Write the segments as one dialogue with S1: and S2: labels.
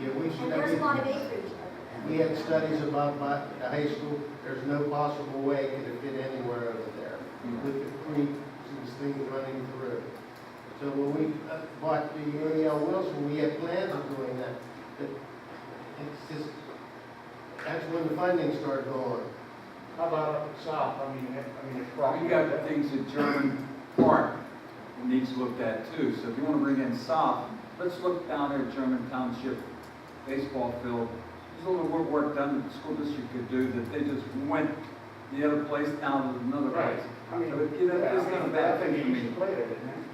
S1: And there's a lot of acreage.
S2: We had studies about my, the high school, there's no possible way it could have fit anywhere over there with the creeks and things running through. So when we uh, bought the Ariel Wilson, we had plans of doing that, but it's just, that's when the funding started going.
S3: How about up south, I mean, if- I mean, it's rocky.
S4: We got things at German Park that needs looked at too, so if you wanna bring in south, let's look down there at German Township baseball field. There's a little work done that the school district could do that they just went the other place down to another
S3: Right.
S4: place.
S3: I mean,
S4: So, you know,
S3: yeah, I
S4: it's not a
S3: mean,
S4: bad
S3: I think
S4: thing.
S3: you used to play there, didn't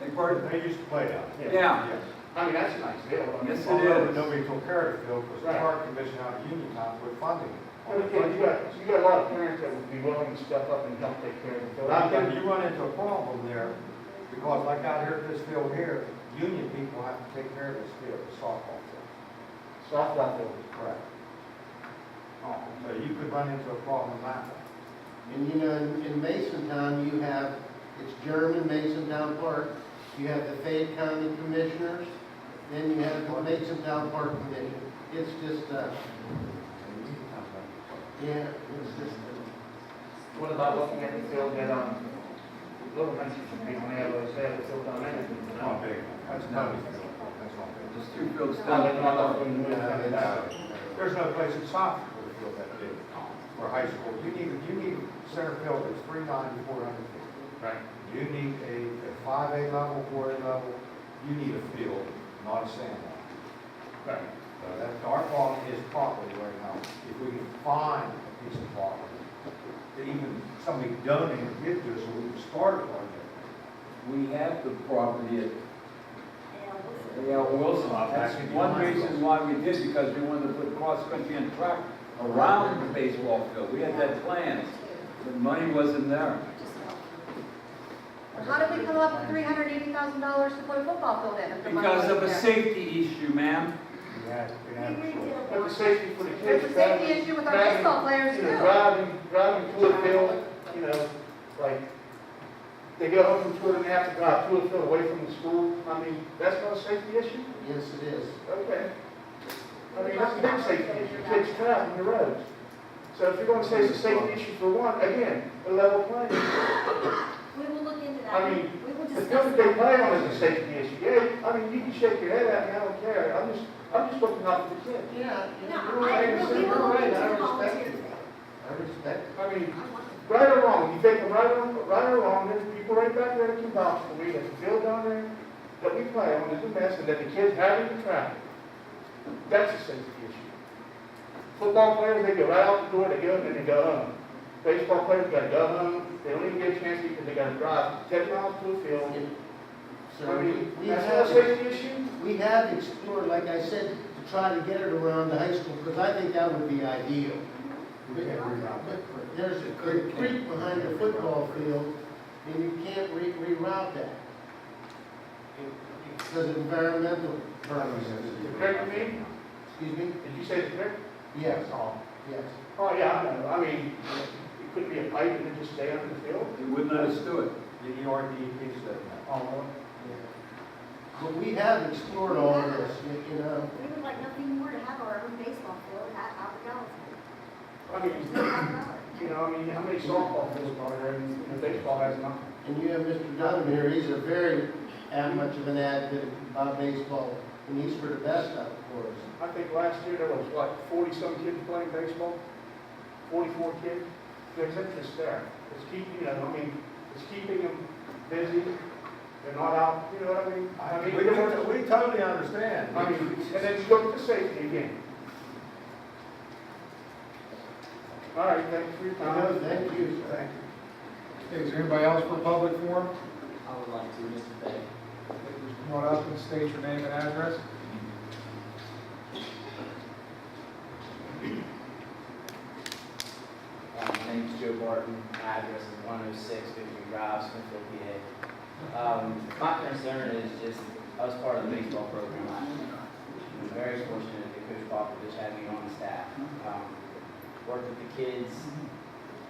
S4: They part,
S3: you? They used to play uh, there.
S4: Yeah.
S3: yes. I mean, that's a nice field. I mean,
S4: Yes, it
S3: although
S4: is.
S3: Nobody took care of the field, because the
S5: Right.
S3: park commission out of Uniontown would funding. it.
S5: But again, you got, you got a lot of parents that would be willing to step up and help take care of the
S3: But I think
S5: children.
S3: you run into a problem there, because like out here, at this field here, union people have to take care of this field, the softball field.
S5: Softball field.
S3: Correct. Oh, So you could run into a problem that way.
S2: And you know, in in Masontown, you have, it's German Masontown Park, you have the Fayette County Commissioners, then you have the Masontown Park Commission. It's just, uh, yeah, it's just, uh,
S5: What about looking at the field that, um, Little Manchester should be on there, let's say, the field down there.
S3: Not big. That's not big. That's not big.
S4: there's two fields
S5: Down
S4: down
S5: there, not up
S4: there.
S5: in the middle
S2: uh,
S5: of the
S2: it's-
S5: town.
S3: There's no place in soccer for a field that big, for high school. You need, you need center field that's three ninety, four hundred feet.
S5: Right.
S3: You need a, a five A level, four A level, you need a field, not a sand lot.
S5: Right.
S3: So That's, our problem is property right now. If we can find a piece of property, that even somebody donated, give to us, so we can start a project.
S4: We have the property at
S1: Yeah, we'll see.
S4: Yeah, Wilson, that's one reason why we did, because we wanted to put cross-country and track around the baseball field. We had that plan, but money wasn't there.
S1: Just help. Well, How did we come up with three hundred eighty thousand dollars to put a football field in? if the money
S4: Because of a
S1: wasn't there?
S4: safety issue, ma'am.
S3: We had, we
S1: We
S3: had.
S1: agreed to.
S5: But the safety for the kids.
S1: There's a safety issue with our baseball players
S5: You know,
S1: too.
S5: driving, driving to a field, you know, like, they go home from school and they have to drive to a field away from the school. I mean, that's not a safety issue?
S2: yes, it is.
S5: Okay. I mean, that's a big safety issue, kids cut out on the roads. So if you're gonna say it's a safety issue for one, again, a level playing. field.
S1: We will look into that.
S5: I mean,
S1: We will
S5: The
S1: discuss.
S5: field that they play on is a safety issue, yeah, I mean, you can shake your head at me, I don't care, I'm just, I'm just looking out for the kids.
S3: Yeah.
S1: No, I, we will look into the volunteer thing.
S2: I respect it.
S5: I mean,
S1: I want to-
S5: right or wrong, you take them right or, right or wrong, there's people right back there that can vouch for me, that the field down there, that we play on is a mess, and that the kids have in the traffic. That's a safety issue. Football players, they go right out the door, they go, and then they go home. Baseball players gotta go home, they don't even get a chance because they gotta drive ten miles to the field. I
S2: So we,
S5: mean,
S2: we
S5: that's not a
S2: have,
S5: safety issue?
S2: we have explored, like I said, to try to get it around the high school, because I think that would be ideal.
S3: We can't read out.
S2: But There's a creek creek behind the football field, and you can't re- reroute that. Because of environmental purposes.
S5: Correct me,
S2: Excuse me?
S5: did you say the correct?
S2: Yes,
S5: Oh,
S2: yes.
S5: oh, yeah, I know, I mean, it could be a pipe and it just stay under the field.
S4: They wouldn't let us do it.
S3: The E ERDP said that.
S5: Oh,
S2: yeah. But we have explored all this, you- you know.
S1: We would like nothing more to have our own baseball field at Albert Ellis.
S5: I mean,
S1: There's no half hour.
S5: You know, I mean, how many softball fields are there, and you know, baseball has nothing.
S2: And you have Mr. Dunham here, he's a very, ad- much of an advocate about baseball, and he's for the best of it for us.
S5: I think last year there was, what, forty-some kids playing baseball? Forty-four kids? There's interest there. It's keeping, you know, I mean, it's keeping them busy, they're not out, you know what I mean? I mean,
S3: We, we totally understand.
S5: I mean, and then you look at the safety again. All right, thanks for your
S2: No,
S5: time.
S2: thank you, sir.
S6: Is there anybody else for public forum?
S7: I would like to, Mr. Day.
S6: Come on up and state your name and address.
S7: Uh, My name is Joe Barton, my address is 106 Victory Drive, Smithfield, PA. Um, My concern is just, I was part of the baseball program last year. I'm very fortunate that Coach Popovich had me on the staff. Um, Worked with the kids,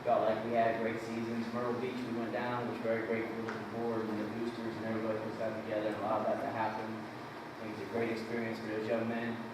S7: felt like we had great seasons. Myrtle Beach, we went down, was very grateful to the board and the boosters and everybody who's got together and allowed that to happen. I think it's a great experience for those young men.